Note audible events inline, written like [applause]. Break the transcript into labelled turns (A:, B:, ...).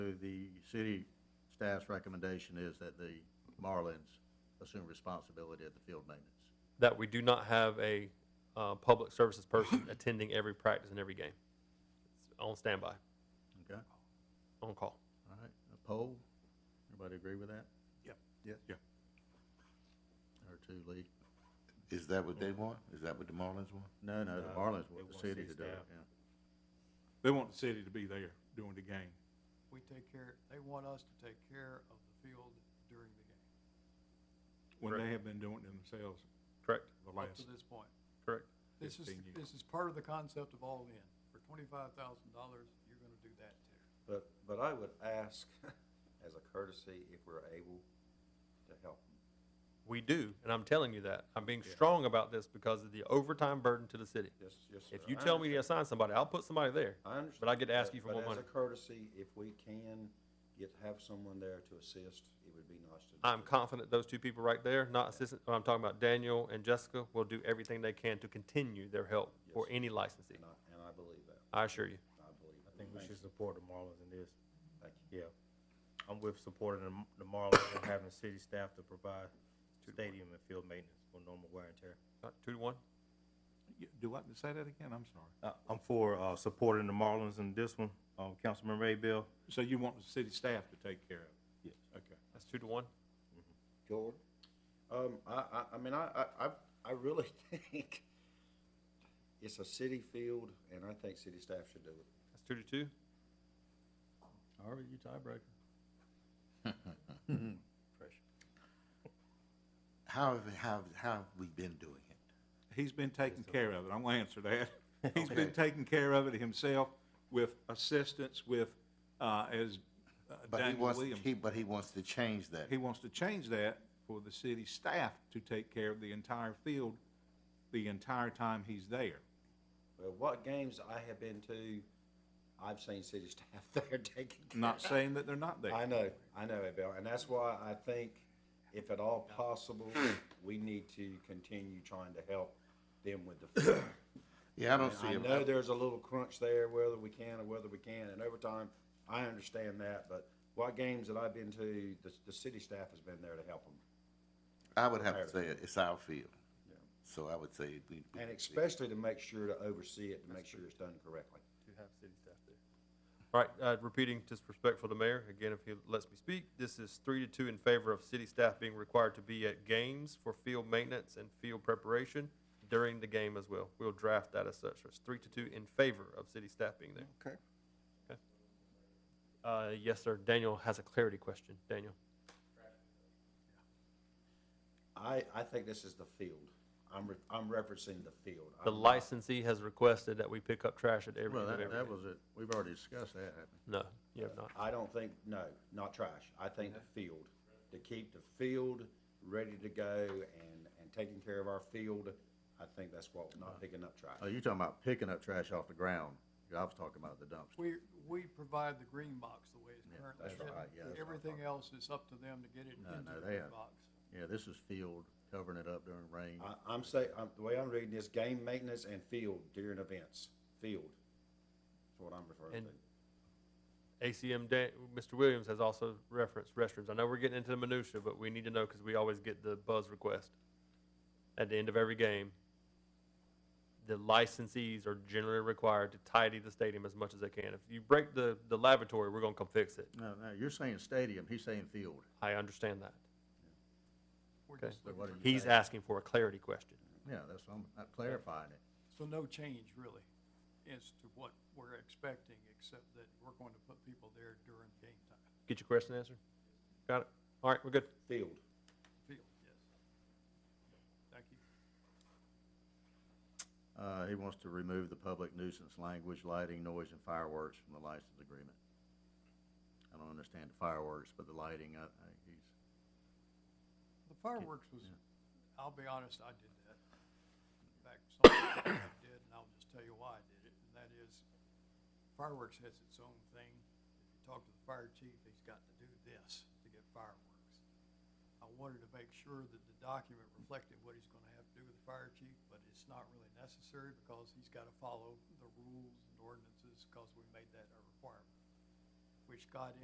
A: So the city staff's recommendation is that the Marlins assume responsibility of the field maintenance.
B: that we do not have a uh, public services [laughs] person attending every practice and every game. It's on standby,
A: Okay,
B: on call.
A: all right, a poll, everybody agree with that?
C: Yep.
A: Yeah?
C: Yeah.
A: Or two, Lee?
D: Is that what they want? Is that what the Marlins want?
A: No, no, the Marlins
C: No, they
A: want the
C: want
A: city to
C: city
A: do it,
C: staff.
A: yeah.
C: They want the city to be there during the game.
E: we take care, they want us to take care of the field during the game,
C: when
B: Correct.
C: they have been doing it themselves
B: Correct,
C: the
E: up to
C: last,
E: this point.
B: correct.
E: This is,
C: 15 years.
E: this is part of the concept of all in. For twenty-five thousand dollars, you're gonna do that too.
F: But, but I would ask, [laughs] as a courtesy, if we're able to help them.
B: We do, and I'm telling you that. I'm being strong about this because of the overtime burden to the city.
F: Yes, yes, sir.
B: If you
F: I
B: tell me to
F: understand.
B: assign somebody, I'll put somebody there.
F: I understand.
B: but I get to ask you for
F: but
B: more money.
F: as a courtesy, if we can get, have someone there to assist, it would be nice to.
B: I'm confident those two people right there, not assistant, I'm talking about Daniel and Jessica, will do everything they can to continue their help for
F: Yes.
B: any licensee.
F: And I, and I believe that.
B: I assure you.
F: I believe.
G: I think we should support the Marlins in this.
F: Thank you.
G: Yeah. I'm with supporting the- the Marlins and having city staff to provide stadium and field maintenance for normal wear and tear.
B: Uh, Two to one?
C: Yeah, do I say that again? I'm sorry.
G: Uh, I'm for, uh, supporting the Marlins in this one. Um, Councilman Ray Bill?
C: So you want the city staff to take care of it?
G: Yes.
C: Okay.
B: That's two to one?
F: George? Um, I, I, I mean, I, I, I- I really [laughs] think it's a city field, and I think city staff should do it.
B: That's two to two?
A: Harvey, you tiebreaker.
D: How have, how, how have we been doing it?
C: He's been taking care of it. I'm gonna answer [laughs] that. He's been taking care of it himself with assistance with, uh, as uh,
D: But he
C: Daniel
D: wants,
C: Williams.
D: he, but he wants to change that.
C: He wants to change that for the city staff to take care of the entire field the entire time he's there.
F: Well, what games I have been to, I've seen city [laughs] staff there taking care
C: Not saying that they're not there.
F: I know, I know, Abel, and that's why I think, if at all possible,
D: Hmm.
F: we need to continue trying to help them with
D: [coughs]
F: the food.
D: Yeah, I don't see
F: I know
D: it.
F: there's a little crunch there, whether we can or whether we can, and over time, I understand that, but what games that I've been to, the, the city staff has been there to help them,
D: I would have to say it- it's our field.
F: Yeah.
D: So I would say we. we-
F: and especially to make sure to oversee it, to make sure it's done correctly.
B: to have city staff there. All right, uh, repeating, just respectful to the mayor, again, if he lets me speak, this is three to two in favor of city staff being required to be at games for field maintenance and field preparation during the game as well. We'll draft that as such. So It's three to two in favor of city staff being there.
F: Okay.
B: Uh, yes, sir. Daniel has a clarity question. Daniel?
F: I, I think this is the field. I'm, re- I'm referencing the field.
B: The
F: I'm not-
B: licensee has requested that we pick up trash at every,
A: Well,
B: end of
A: that,
B: every.
A: that was it, we've already discussed that, haven't
B: No, you have not.
F: I don't think, no, not trash. I think the field, to keep the field ready to go and, and taking care of our field, I think that's what, not picking up
A: we? Oh,
F: trash.
A: you're talking about picking up trash off the ground, I was talking about the dumpster.
E: We, we provide the green box the way it's
A: Yeah,
E: currently
A: that's
E: written.
A: right, yeah, that's what I'm
E: Everything else is up to them to get it
A: No,
E: into
A: no,
E: the
A: they
E: green
A: have-
E: box.
A: Yeah, this is field, covering it up during rain.
F: I, I'm say, I'm, the way I'm reading this, game maintenance and field during events, field. That's what I'm referring
B: And-
F: to.
B: ACM, Dan, Mr. Williams has also referenced restrooms. I know we're getting into the minutia, but we need to know because we always get the buzz request at the end of every game. The licensees are generally required to tidy the stadium as much as they can. If you break the, the lavatory, we're gonna come fix it.
A: No, no, you're saying stadium, he's saying field.
B: I understand that.
E: We're
B: Okay.
E: just
A: But
E: looking
A: what are
E: for-
A: you
B: He's
A: saying?
B: asking for a clarity question.
A: Yeah, that's, I'm I'm clarifying it.
E: So no change really as to what we're expecting, except that we're going to put people there during game time.
B: Get your question answered? Got it? All right, we're good.
F: Field.
E: Field, yes. Thank you.
A: Uh, he wants to remove the public nuisance language, lighting, noise, and fireworks from the license agreement. I don't understand the fireworks, but the lighting, I, I, he's,
E: The fireworks was, I'll be honest, I did that. In fact, something I did, and I'll just tell you why I did it, and that is fireworks has its own thing. If you talk to the fire chief, he's got to do this to get fireworks. I wanted to make sure that the document reflected what he's gonna have to do with the fire chief, but it's not really necessary because he's gotta follow the rules and ordinances, because we made that a requirement, which got